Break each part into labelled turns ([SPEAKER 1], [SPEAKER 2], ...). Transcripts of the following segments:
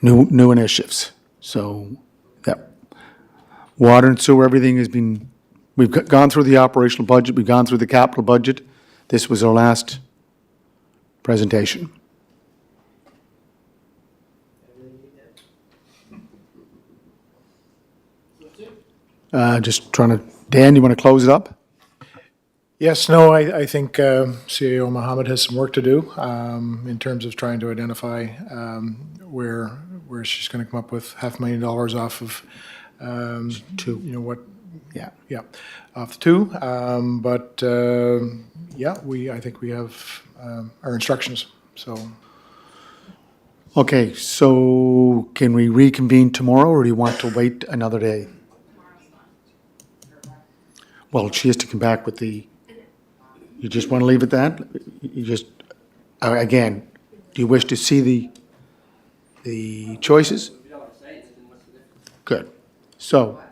[SPEAKER 1] new, new initiatives. So that water and sewer, everything has been, we've go- gone through the operational budget, we've gone through the capital budget. This was our last presentation. Uh, just trying to, Dan, you want to close it up?
[SPEAKER 2] Yes, no, I, I think um, CEO Mohammed has some work to do um, in terms of trying to identify um, where, where she's going to come up with half a million dollars off of, um, you know, what,
[SPEAKER 1] Yeah.
[SPEAKER 2] yeah, off the two. Um, But, um, yeah, we, I think we have um, our instructions, so.
[SPEAKER 1] Okay, so can we reconvene tomorrow, or do you want to wait another day? Well, she has to come back with the, you just want to leave it that? You just, uh, again, do you wish to see the, the choices? Good. So,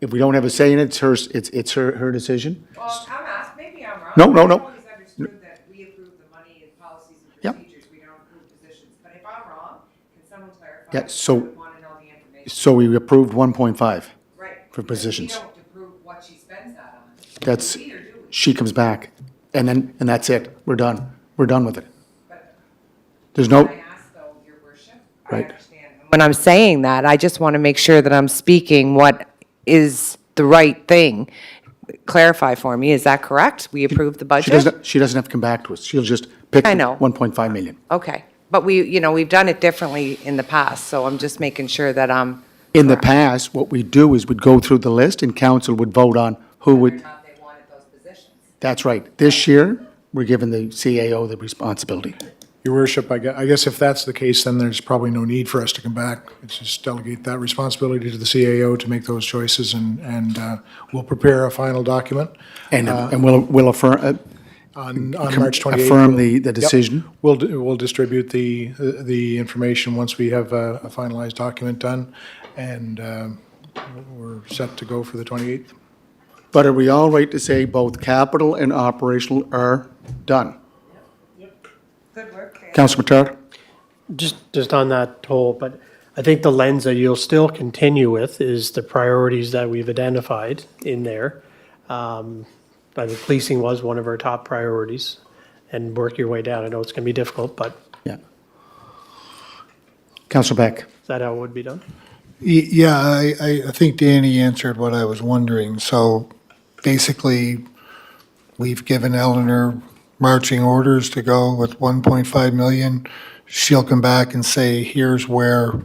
[SPEAKER 1] if we don't have a say in it, it's her, it's, it's her, her decision?
[SPEAKER 3] Well, I'm asked, maybe I'm wrong.
[SPEAKER 1] No, no, no.
[SPEAKER 3] I've always understood that we approve the money and policies
[SPEAKER 1] Yeah.
[SPEAKER 3] and procedures, we don't approve positions, but if I'm wrong, can someone clarify?
[SPEAKER 1] Yeah,
[SPEAKER 3] Because I
[SPEAKER 1] so-
[SPEAKER 3] would wanna know the information,
[SPEAKER 1] So we approved 1.5.
[SPEAKER 3] right?
[SPEAKER 1] for
[SPEAKER 3] because
[SPEAKER 1] positions.
[SPEAKER 3] We don't approve what she spends that on.
[SPEAKER 1] That's,
[SPEAKER 3] Either do we,
[SPEAKER 1] she comes back, and then, and that's it. We're done. We're done with it.
[SPEAKER 3] but
[SPEAKER 1] There's no,
[SPEAKER 3] I ask though, your worship, I
[SPEAKER 1] Right.
[SPEAKER 3] understand. When I'm saying that, I just wanna make sure that I'm speaking what is the right thing. Clarify for me, is that correct? We approve the budget?
[SPEAKER 1] she doesn't, she doesn't have to come back to us. She'll just pick.
[SPEAKER 3] I know.
[SPEAKER 1] 1.5 million.
[SPEAKER 3] Okay, but we, you know, we've done it differently in the past, so I'm just making sure that I'm.
[SPEAKER 1] In the past, what we do is we'd go through the list and council would vote on who would,
[SPEAKER 3] not they wanted those positions.
[SPEAKER 1] that's right. This year, we're giving the CAO the responsibility.
[SPEAKER 2] Your worship, I guess, I guess if that's the case, then there's probably no need for us to come back. It's just delegate that responsibility to the CAO to make those choices and, and uh, we'll prepare a final document
[SPEAKER 1] And, and we'll, we'll affirm, uh,
[SPEAKER 2] on, on March 28th.
[SPEAKER 1] affirm the, the decision.
[SPEAKER 2] We'll, d- we'll distribute the, the information once we have a a finalized document done and uh, we're set to go for the 28th.
[SPEAKER 1] But are we all right to say both capital and operational are done?
[SPEAKER 3] Good work, Kay.
[SPEAKER 1] Councilor Matar?
[SPEAKER 4] Just, just on that whole, but I think the lens that you'll still continue with is the priorities that we've identified in there. Um, I think policing was one of our top priorities and work your way down. I know it's going to be difficult, but
[SPEAKER 1] Yeah. Councilor Beck?
[SPEAKER 4] is that how it would be done?
[SPEAKER 5] Y- Yeah, I, I I think Danny answered what I was wondering. So basically, we've given Eleanor marching orders to go with 1.5 million. She'll come back and say, here's where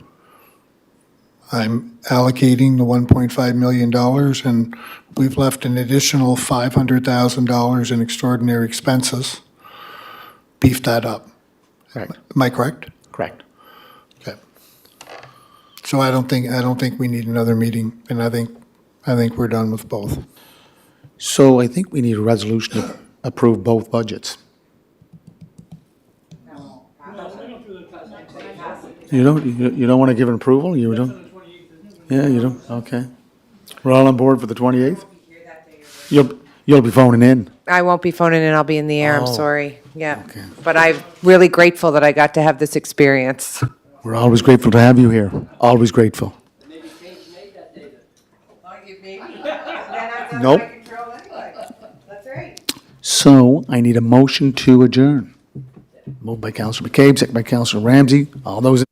[SPEAKER 5] I'm allocating the 1.5 million dollars. And we've left an additional $500,000 in extraordinary expenses. Beef that up.
[SPEAKER 1] Correct.
[SPEAKER 5] Am I correct?
[SPEAKER 1] Correct.
[SPEAKER 5] Okay. So I don't think, I don't think we need another meeting, and I think, I think we're done with both.
[SPEAKER 1] So I think we need a resolution to approve both budgets. You don't, you you don't want to give an approval? You don't? Yeah, you don't, okay. We're all on board for the 28th? You'll, you'll be phoning in.
[SPEAKER 3] I won't be phoning in, I'll be in the air, I'm
[SPEAKER 1] Oh.
[SPEAKER 3] sorry, yeah.
[SPEAKER 1] Okay.
[SPEAKER 3] But I'm really grateful that I got to have this experience.
[SPEAKER 1] We're always grateful to have you here, always grateful. Nope.
[SPEAKER 3] That's right.
[SPEAKER 1] So I need a motion to adjourn. Moved by Councilor McCabe, second by Councilor Ramsey. All those in